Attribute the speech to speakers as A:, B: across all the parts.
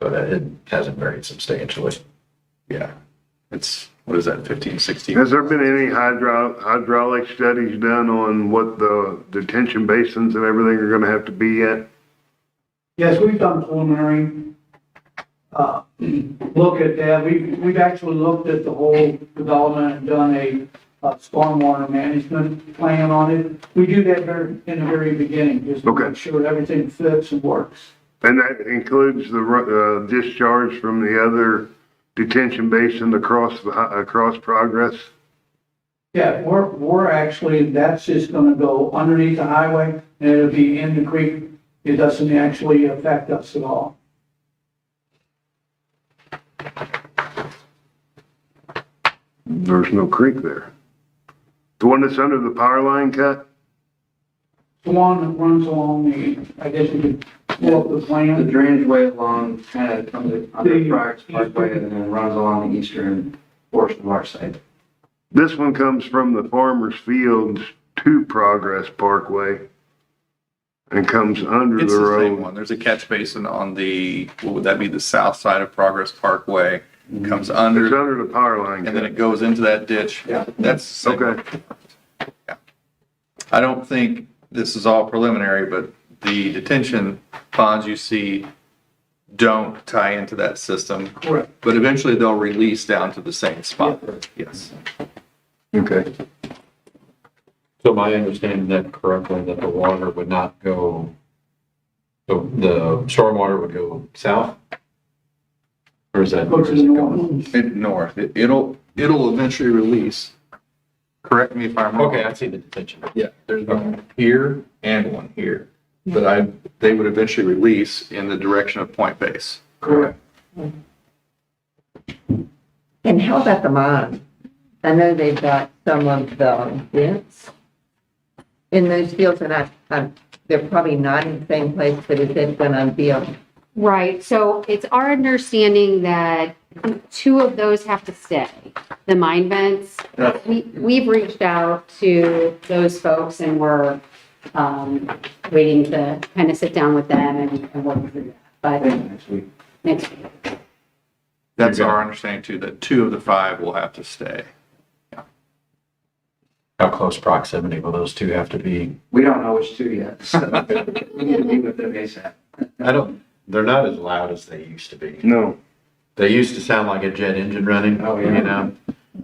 A: So that it hasn't varied substantially.
B: Yeah. It's, what is that, 15, 16?
C: Has there been any hydro, hydraulic studies done on what the detention basins and everything are gonna have to be at?
D: Yes, we've done preliminary, uh, look at that. We've, we've actually looked at the whole development and done a, uh stormwater management plan on it. We do that very, in the very beginning, just to
C: Okay.
D: make sure everything fits and works.
C: And that includes the, ru- uh, discharge from the other detention basin across, the hi- across Progress?
D: Yeah, we're, we're actually, that's just gonna go underneath the highway and it'll be in the creek. It doesn't actually affect us at all.
C: There's no creek there. The one that's under the power line cut?
D: The one that runs along the, I guess you could pull up the
E: The
D: plan.
E: drainage way along kind of comes in under
D: The-
E: Friars Parkway and then runs along the eastern portion of our site.
C: This one comes from the farmer's fields to Progress Parkway and comes under
B: It's
C: the
B: the same
C: road.
B: one. There's a catch basin on the, what would that be, the south side of Progress Parkway, comes
C: It's
B: under,
C: under the power line
B: and then it
C: cut.
B: goes into that ditch.
E: Yeah.
B: That's the same one.
C: Okay.
B: I don't think this is all preliminary, but the detention ponds you see don't tie into that system,
D: Correct.
B: but eventually they'll release down to the same spot. Yes.
C: Okay.
A: So my understanding that correctly, that the water would not go, the, the stormwater would go south? Or is that?
D: Go
A: where
D: to
A: is
D: the
A: it going?
D: north.
B: It north. It- It'll, it'll eventually release. Correct me if I'm wrong.
A: Okay, I see the detention.
B: Yeah, there's one here and one here, but I, they would eventually release in the direction of Point Base.
D: Correct.
F: And how about the mine? I know they've got some of the vents in those fields, and I, I'm, they're probably not in the same place, but is it gonna be a,
G: Right, so it's our understanding that two of those have to stay, the mine vents. We, we've reached out to those folks and we're, um, waiting to kind of sit down with them and, and work through that, but
E: Next week.
G: next week.
B: That's our understanding too, that two of the five will have to stay.
A: How close proximity will those two have to be?
E: We don't know which two yet, so we need to meet with them ASAP.
A: I don't, they're not as loud as they used to be.
C: No.
A: They used to sound like a jet engine running,
E: Oh,
A: you
E: yeah.
A: know?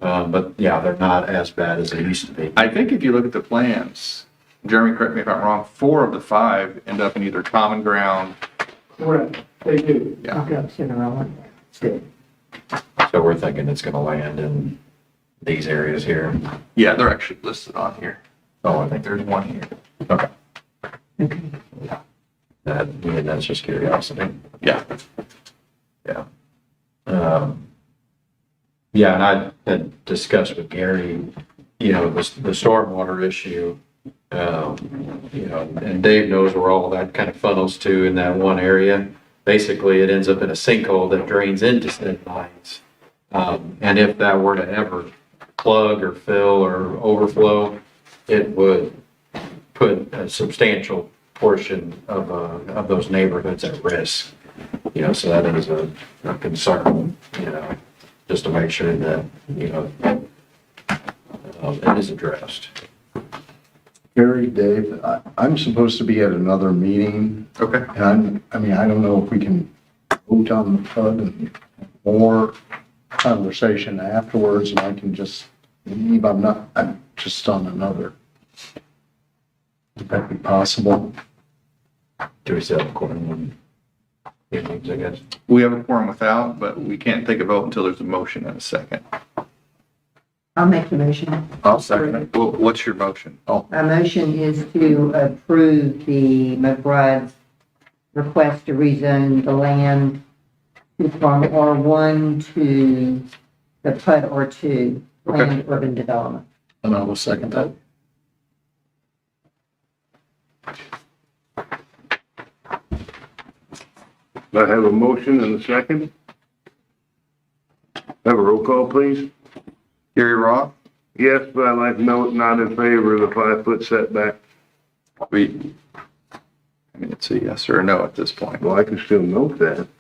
A: Um, but yeah, they're not as bad as they used to be.
B: I think if you look at the plans, Jeremy, correct me if I'm wrong, four of the five end up in either common ground.
D: Correct, they do.
B: Yeah.
F: okay, you know, I want to-
A: So we're thinking it's gonna land in these areas here.
B: Yeah, they're actually listed on here.
A: Oh, I
B: I think
A: think,
B: there's one here.
A: okay. That, I mean, that's just curiosity.
B: Yeah.
A: Yeah. Um, Yeah, and I had discussed with Gary, you know, the, the stormwater issue. um, You know, and Dave knows where all that kind of funnels to in that one area. Basically, it ends up in a sinkhole that drains into said lines. Um, And if that were to ever plug or fill or overflow, it would put a substantial portion of, uh, of those neighborhoods at risk. You know, so that is a, a concern, you know, just to make sure that, you know, um, it is addressed.
H: Gary, Dave, I- I'm supposed to be at another meeting,
B: Okay.
H: and I'm, I mean, I don't know if we can vote on the PUD and more conversation afterwards, and I can just leave, I'm not, I'm just on another. Would that be possible?
A: Do we still have a quorum on evenings, I guess?
B: We have a quorum without, but we can't take a vote until there's a motion and a second.
F: I'll make the motion.
H: I'll
B: Well, what's your motion?
F: My motion is to approve the McBride's request to rezone the land from R1 to the PUD R2, planned urban development.
H: And I will second that.
C: I have a motion and a second. Have a roll call, please.
B: Gary Roth?
C: Yes, but I like note not in favor of the five-foot setback.
B: We, I mean, it's a yes or a no at this point.
C: Well, I can still note that.